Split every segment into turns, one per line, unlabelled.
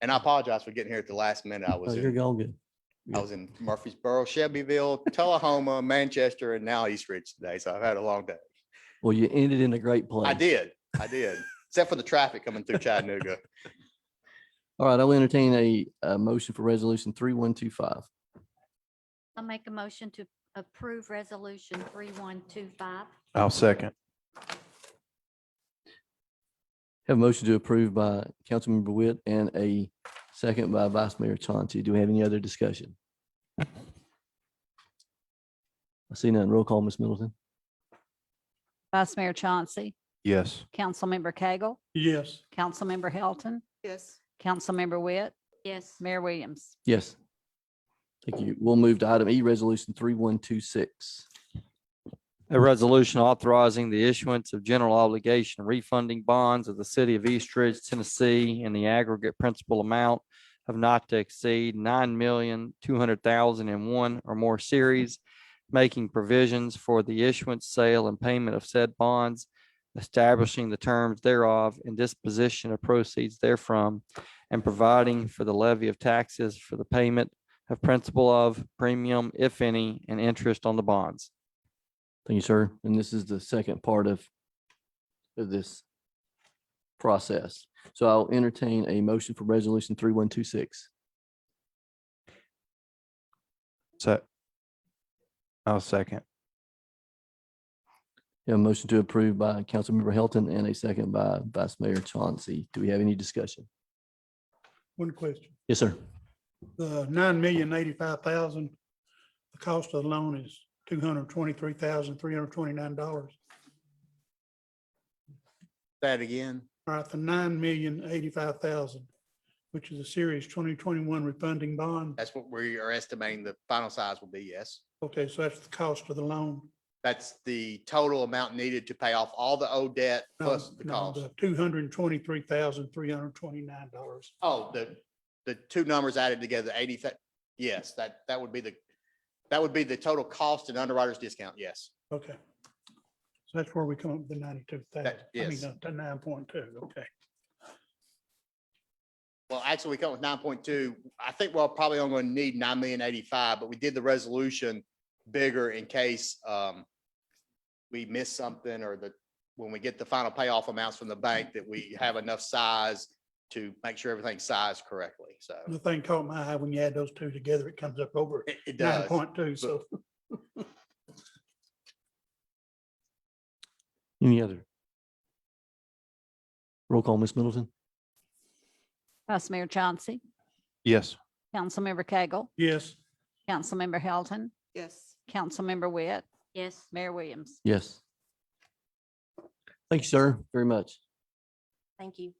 And I apologize for getting here at the last minute. I was,
Oh,
in-
You're all good.
I was in Murfreesboro, Shelbyville, Tullahoma, Manchester, and now East Ridge today. So I've had a long day.
Well, you ended in a great place.
I did, I did, except for the traffic coming through Chattanooga.
All right, I'll entertain a, a motion for resolution three one two five.
I'll make a motion to approve resolution three one two five.
I'll second.
Have a motion to approve by Councilmember Witt and a second by Vice Mayor Chauncey. Do we have any other discussion? I see none. Roll call, Ms. Middleton.
Vice Mayor Chauncey,
Yes.
Councilmember Cagle,
yes,
Councilmember Hilton,
yes,
Councilmember Witt,
Yes,
Mayor Williams.
Yes. Thank you. We'll move to item E, resolution three one two six.
A resolution authorizing the issuance of general obligation refunding bonds of the city of East Ridge, Tennessee in the aggregate principal amount of not to exceed nine million, two hundred thousand and one or more series, making provisions for the issuance, sale, and payment of said bonds, establishing the terms thereof and disposition of proceeds therefrom, and providing for the levy of taxes for the payment of principal of premium, if any, and interest on the bonds.
Thank you, sir. And this is the second part of of this process. So I'll entertain a motion for resolution three one two six.
Se- I'll second.
A motion to approve by Councilmember Hilton and a second by Vice Mayor Chauncey. Do we have any discussion?
one question.
Yes, sir.
The nine million eighty-five thousand, the cost of the loan is two hundred twenty-three thousand, three hundred twenty-nine dollars.
That again,
All right, the nine million eighty-five thousand, which is a series twenty twenty-one refunding bond.
that's what we are estimating the final size will be, yes.
Okay, so that's the cost of the loan.
That's the total amount needed to pay off all the old debt plus the cost.
Two hundred twenty-three thousand, three hundred twenty-nine dollars.
Oh, the, the two numbers added together, eighty, thou- yes, that, that would be the, that would be the total cost and underwriter's discount, yes.
Okay. So that's where we come up with the ninety-two thousand.
That-
I mean,
yes.
uh, the nine point two, okay.
Well, actually, we come with nine point two. I think we're probably only gonna need nine million eighty-five, but we did the resolution bigger in case um we miss something or that when we get the final payoff amounts from the bank that we have enough size to make sure everything's sized correctly. So
The thing caught my eye, when you add those two together, it comes up over
it it
nine
does.
point two, so.
Any other? Roll call, Ms. Middleton.
Vice Mayor Chauncey,
Yes.
Councilmember Cagle,
Yes,
Councilmember Hilton,
yes.
Councilmember Witt,
yes.
Mayor Williams.
Yes. Thank you, sir, very much.
Thank you.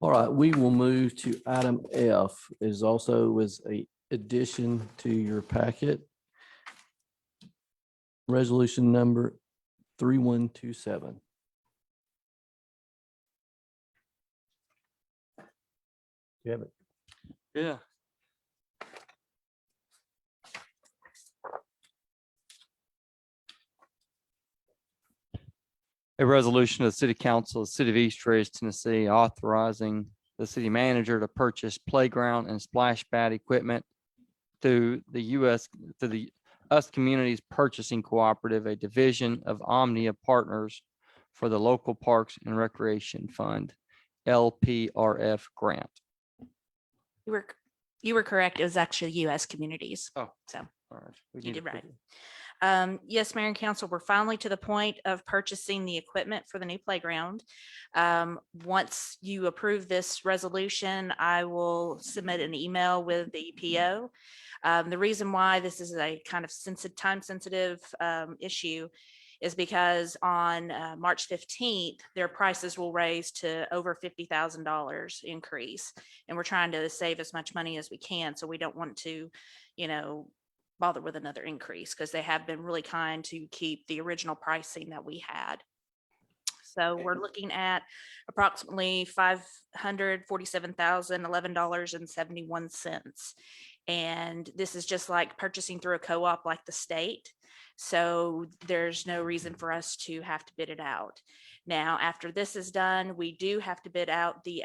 All right, we will move to item F is also was a addition to your packet. Resolution number three one two seven. You have it.
Yeah. A resolution of the City Council, of the City of East Ridge, Tennessee, authorizing the city manager to purchase playground and splash pad equipment through the US, through the US Communities Purchasing Cooperative, a division of Omnia Partners for the Local Parks and Recreation Fund, LPRF grant.
You were, c- you were correct. It was actually US communities.
Oh.
So
All right, we
you
need to
did
put
right.
it-
Um, yes, Mayor and Council, we're finally to the point of purchasing the equipment for the new playground. Um, once you approve this resolution, I will submit an email with the PO. Um, the reason why this is a kind of sensitive, time-sensitive, um, issue is because on, uh, March fifteenth, their prices will raise to over fifty thousand dollars increase. And we're trying to save as much money as we can, so we don't want to, you know, bother with another increase because they have been really kind to keep the original pricing that we had. So we're looking at approximately five hundred forty-seven thousand eleven dollars and seventy-one cents. And this is just like purchasing through a co-op like the state. So there's no reason for us to have to bid it out. Now, after this is done, we do have to bid out the